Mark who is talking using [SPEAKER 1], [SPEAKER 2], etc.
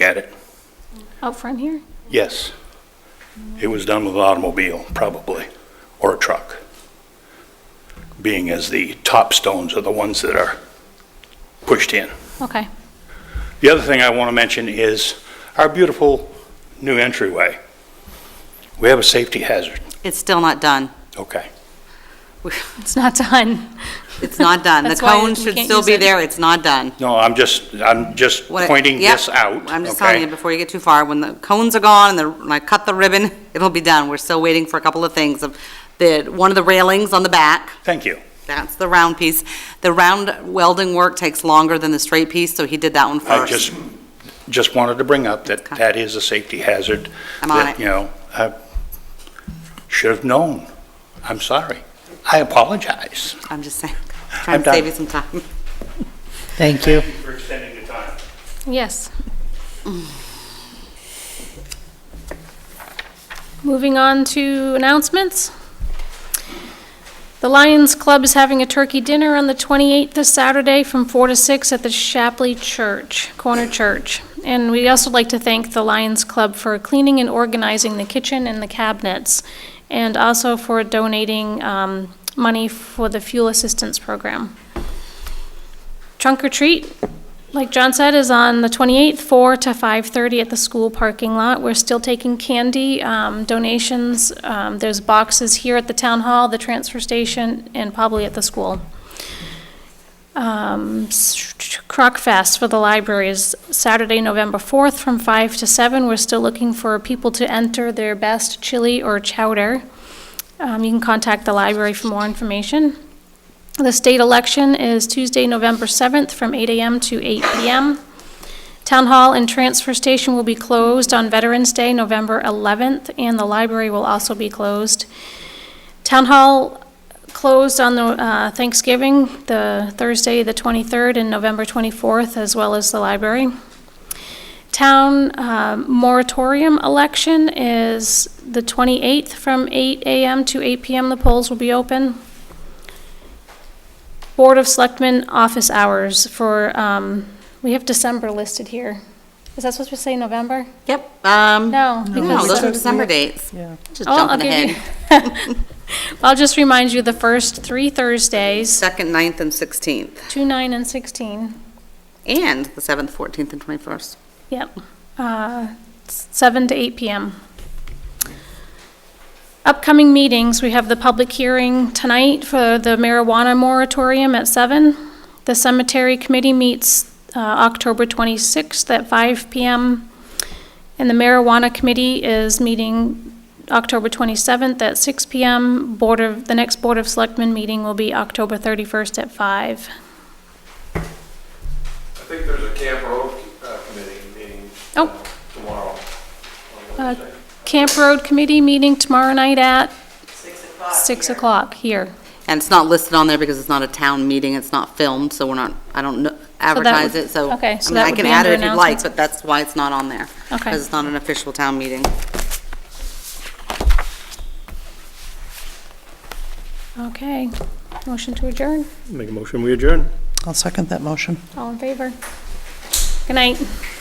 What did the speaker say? [SPEAKER 1] at it.
[SPEAKER 2] Out front here?
[SPEAKER 1] Yes. It was done with an automobile, probably, or a truck, being as the top stones are the ones that are pushed in.
[SPEAKER 2] Okay.
[SPEAKER 1] The other thing I want to mention is our beautiful new entryway. We have a safety hazard.
[SPEAKER 3] It's still not done.
[SPEAKER 1] Okay.
[SPEAKER 2] It's not done.
[SPEAKER 3] It's not done. The
[SPEAKER 2] That's why
[SPEAKER 3] cone
[SPEAKER 2] we
[SPEAKER 3] should
[SPEAKER 2] can't
[SPEAKER 3] still
[SPEAKER 2] use
[SPEAKER 3] be
[SPEAKER 2] it.
[SPEAKER 3] there, it's not done.
[SPEAKER 1] No, I'm just, I'm just
[SPEAKER 3] What I-
[SPEAKER 1] pointing
[SPEAKER 3] Yep.
[SPEAKER 1] this out.
[SPEAKER 3] I'm just telling
[SPEAKER 1] okay?
[SPEAKER 3] you, before you get too far, when the cones are gone and the, when I cut the ribbon, it'll be done. We're still waiting for a couple of things. of The, one of the railings on the back,
[SPEAKER 1] Thank you.
[SPEAKER 3] that's the round piece. The round welding work takes longer than the straight piece, so he did that one
[SPEAKER 1] I
[SPEAKER 3] first.
[SPEAKER 1] just, just wanted to bring up that
[SPEAKER 3] Okay.
[SPEAKER 1] that is a safety hazard.
[SPEAKER 3] I'm on
[SPEAKER 1] that,
[SPEAKER 3] it.
[SPEAKER 1] You know, I should have known. I'm sorry. I apologize.
[SPEAKER 3] I'm just saying,
[SPEAKER 1] I'm
[SPEAKER 3] trying to
[SPEAKER 1] done.
[SPEAKER 3] save you some time.
[SPEAKER 4] Thank you.
[SPEAKER 1] For extending the time.
[SPEAKER 2] Yes. Moving on to announcements. The Lions Club is having a turkey dinner on the 28th this Saturday from 4 to 6 at the Shapley Church, Corner Church. And we'd also like to thank the Lions Club for cleaning and organizing the kitchen and the cabinets, and also for donating um, money for the fuel assistance program. Trunk or treat, like John said, is on the 28th, 4 to 5:30 at the school parking lot. We're still taking candy um, donations. Um, There's boxes here at the town hall, the transfer station, and probably at the school. Um, s- Croc Fest for the library is Saturday, November 4th, from 5 to 7. We're still looking for people to enter their best chili or chowder. Um, You can contact the library for more information. The state election is Tuesday, November 7th, from 8 a.m. to 8 p.m. Town Hall and Transfer Station will be closed on Veterans Day, November 11th, and the library will also be closed. Town Hall closed on the uh, Thanksgiving, the Thursday, the 23rd, and November 24th, as well as the library. Town um, moratorium election is the 28th, from 8 a.m. to 8 p.m. The polls will be open. Board of Selectmen office hours for, um, we have December listed here. Is that supposed to say November?
[SPEAKER 3] Yep, um,
[SPEAKER 2] No. because-
[SPEAKER 3] no, those are December dates. Yeah. Just
[SPEAKER 2] Oh, I'll
[SPEAKER 3] jumping
[SPEAKER 2] give you-
[SPEAKER 3] ahead.
[SPEAKER 2] I'll just remind you, the first three Thursdays,
[SPEAKER 3] Second, ninth, and sixteenth,
[SPEAKER 2] 2, 9, and 16.
[SPEAKER 3] and the seventh, fourteenth, and twenty-first.
[SPEAKER 2] Yep, Uh, s- 7 to 8 PM. Upcoming meetings, we have the public hearing tonight for the marijuana moratorium at 7. The cemetery committee meets uh, October 26th at 5 PM. And the marijuana committee is meeting October 27th at 6 PM. Board of, the next Board of Selectmen meeting will be October 31st at 5.
[SPEAKER 5] I think there's a Camp Road uh, Committee meeting
[SPEAKER 2] Oh.
[SPEAKER 5] tomorrow. on
[SPEAKER 2] Uh,
[SPEAKER 5] Wednesday.
[SPEAKER 2] Camp Road Committee meeting tomorrow night at? Six o'clock here.
[SPEAKER 3] And it's not listed on there because it's not a town meeting, it's not filmed, so we're not, I don't kn-
[SPEAKER 2] would-
[SPEAKER 3] advertise it, so.
[SPEAKER 2] okay, so
[SPEAKER 3] I mean,
[SPEAKER 2] that
[SPEAKER 3] I
[SPEAKER 2] would
[SPEAKER 3] can
[SPEAKER 2] be
[SPEAKER 3] add it if
[SPEAKER 2] under
[SPEAKER 3] you'd like,
[SPEAKER 2] announcements.
[SPEAKER 3] but that's why it's not on there.
[SPEAKER 2] Okay.
[SPEAKER 3] Because it's not an official town meeting.
[SPEAKER 2] Okay. Motion to adjourn.
[SPEAKER 6] Make a motion, we adjourn.
[SPEAKER 4] I'll second that motion.
[SPEAKER 2] All in favor? Good night.